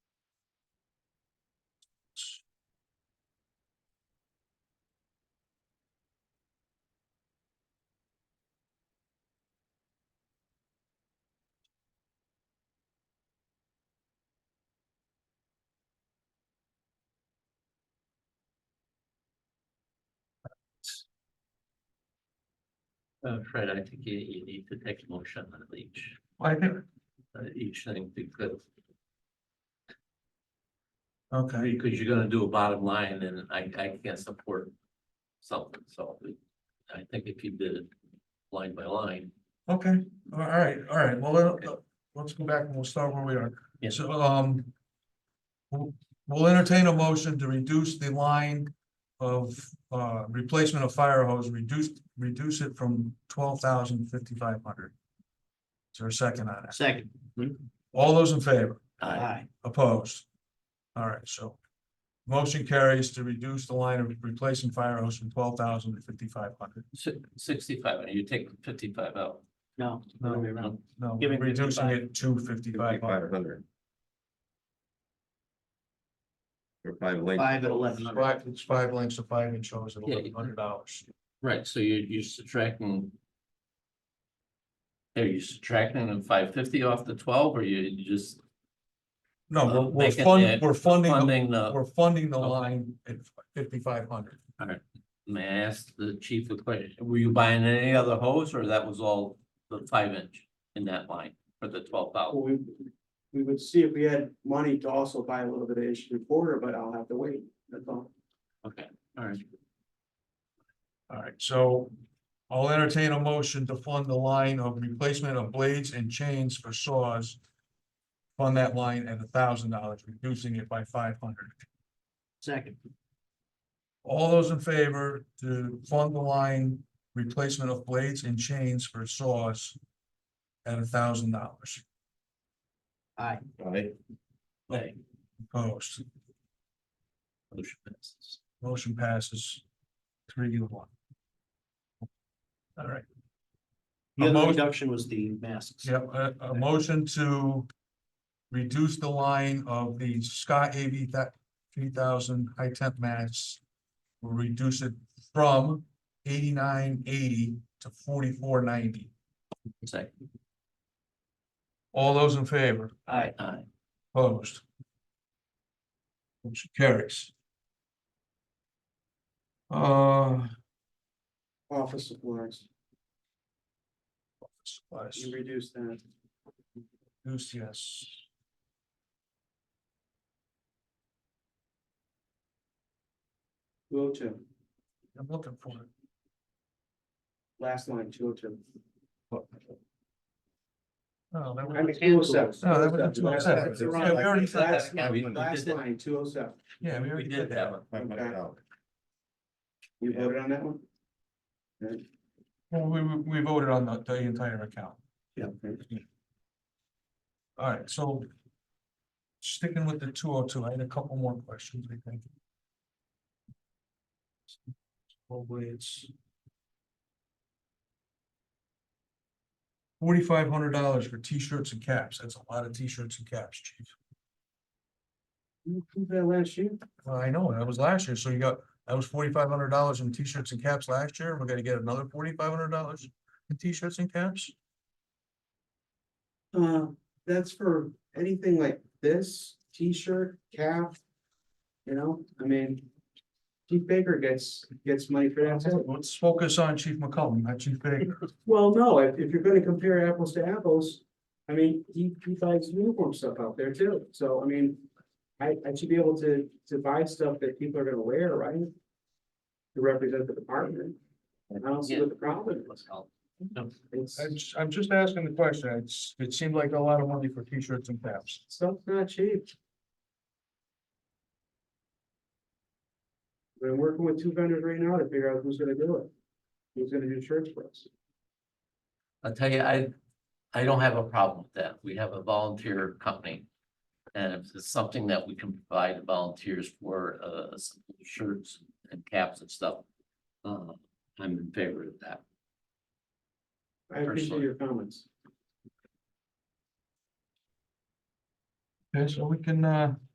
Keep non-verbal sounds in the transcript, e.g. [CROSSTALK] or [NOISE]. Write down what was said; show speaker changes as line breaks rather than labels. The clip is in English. Uh, Fred, I think you, you need to take a motion on each,
I think,
uh, each thing because,
okay,
because you're gonna do a bottom line and I, I can't support something, so. I think if you did it line by line,
okay, all right, all right, well, let- let's go back and we'll start where we are.
Yeah.
So, um. We'll we'll entertain a motion to reduce the line of uh replacement of fire hose, reduce, reduce it from twelve thousand fifty-five hundred. Is there a second on that?
Second.
All those in favor?
I,
Opposed? All right, so. Motion carries to reduce the line of replacing fire hose from twelve thousand to fifty-five hundred.
sixty-five, you take fifty-five out.
No.
No.
other way around.
No,
Giving
reducing
55.
it to fifty-five hundred.
Five hundred. Or five length.
Five at eleven hundred.
Five, it's five lengths of five inch hose at
Yeah.
eleven hundred dollars.
Right, so you, you're subtracting. Are you subtracting the five fifty off the twelve or you you just
No, we're,
Uh,
we're
make it
funding,
the
we're funding, the-
funding the?
we're funding the
Okay.
line at fifty-five hundred.
May I ask the chief a question? Were you buying any other hose or that was all the five inch in that line for the twelve thousand?
We, we would see if we had money to also buy a little bit of issue recorder, but I'll have to wait, that's all.
Okay, all right.
All right, so I'll entertain a motion to fund the line of replacement of blades and chains for saws. Fund that line at thousand dollars, reducing it by five hundred.
Second.
All those in favor to fund the line replacement of blades and chains for saws at thousand dollars
Aye.
Aye.
Okay,
opposed.
motion passes.
Motion passes three to one. All right,
The
A
other
motion-
reduction was the masks.
yeah, a, a motion to reduce the line of the Scott AV that three thousand high temp masks. We'll reduce it from eighty-nine eighty to forty-four ninety.
Second,
All those in favor?
Aye.
aye.
Opposed? Motion carries. Uh,
Office supplies,
supplies,
you reduce that.
Goose, yes.
Two oh two,
I'm looking for it.
last line, two oh two.
No, that
I mean,
was,
two oh seven.
No, that was-
Last-
that's the wrong- Yeah, we already said
last-
that. We- we
Last
did that.
line, two oh seven,
yeah, we
We
already
did that one.
Five hundred dollars.
you voted on that one? Okay.
Well, we, we we voted on the, the entire account.
Yeah.
All right, so sticking with the two oh two, I had a couple more questions, I think. Hopefully it's forty-five hundred dollars for t-shirts and caps. That's a lot of t-shirts and caps, chief.
You approved that last year?
Well, I know, that was last year, so you got, that was forty-five hundred dollars in t-shirts and caps last year, we're gonna get another forty-five hundred dollars in t-shirts and caps?
Uh, that's for anything like this, t-shirt, cap. You know, I mean. Chief Baker gets, gets money for that. too.
Let's focus on Chief McCollum, not Chief Baker. [LAUGHS]
Well, no, if, if you're gonna compare apples to apples, I mean, he, he buys uniform stuff out there too, so I mean. I, I should be able to, to buy stuff that people are gonna wear, right? To represent the department. And I don't see what the problem is. It's,
I'm, just- I'm just asking the question, it's, it seemed like a lot of money for t-shirts and caps.
stuff's not cheap. We're working with two vendors right now to figure out who's gonna do it. Who's gonna do shirts for us?
I'll tell you, I, I don't have a problem with that. We have a volunteer company. And if it's something that we can provide volunteers for, uh, some shirts and caps and stuff. Uh, I'm in favor of that.
I appreciate
Personally.
your comments.
Okay, so we can, uh,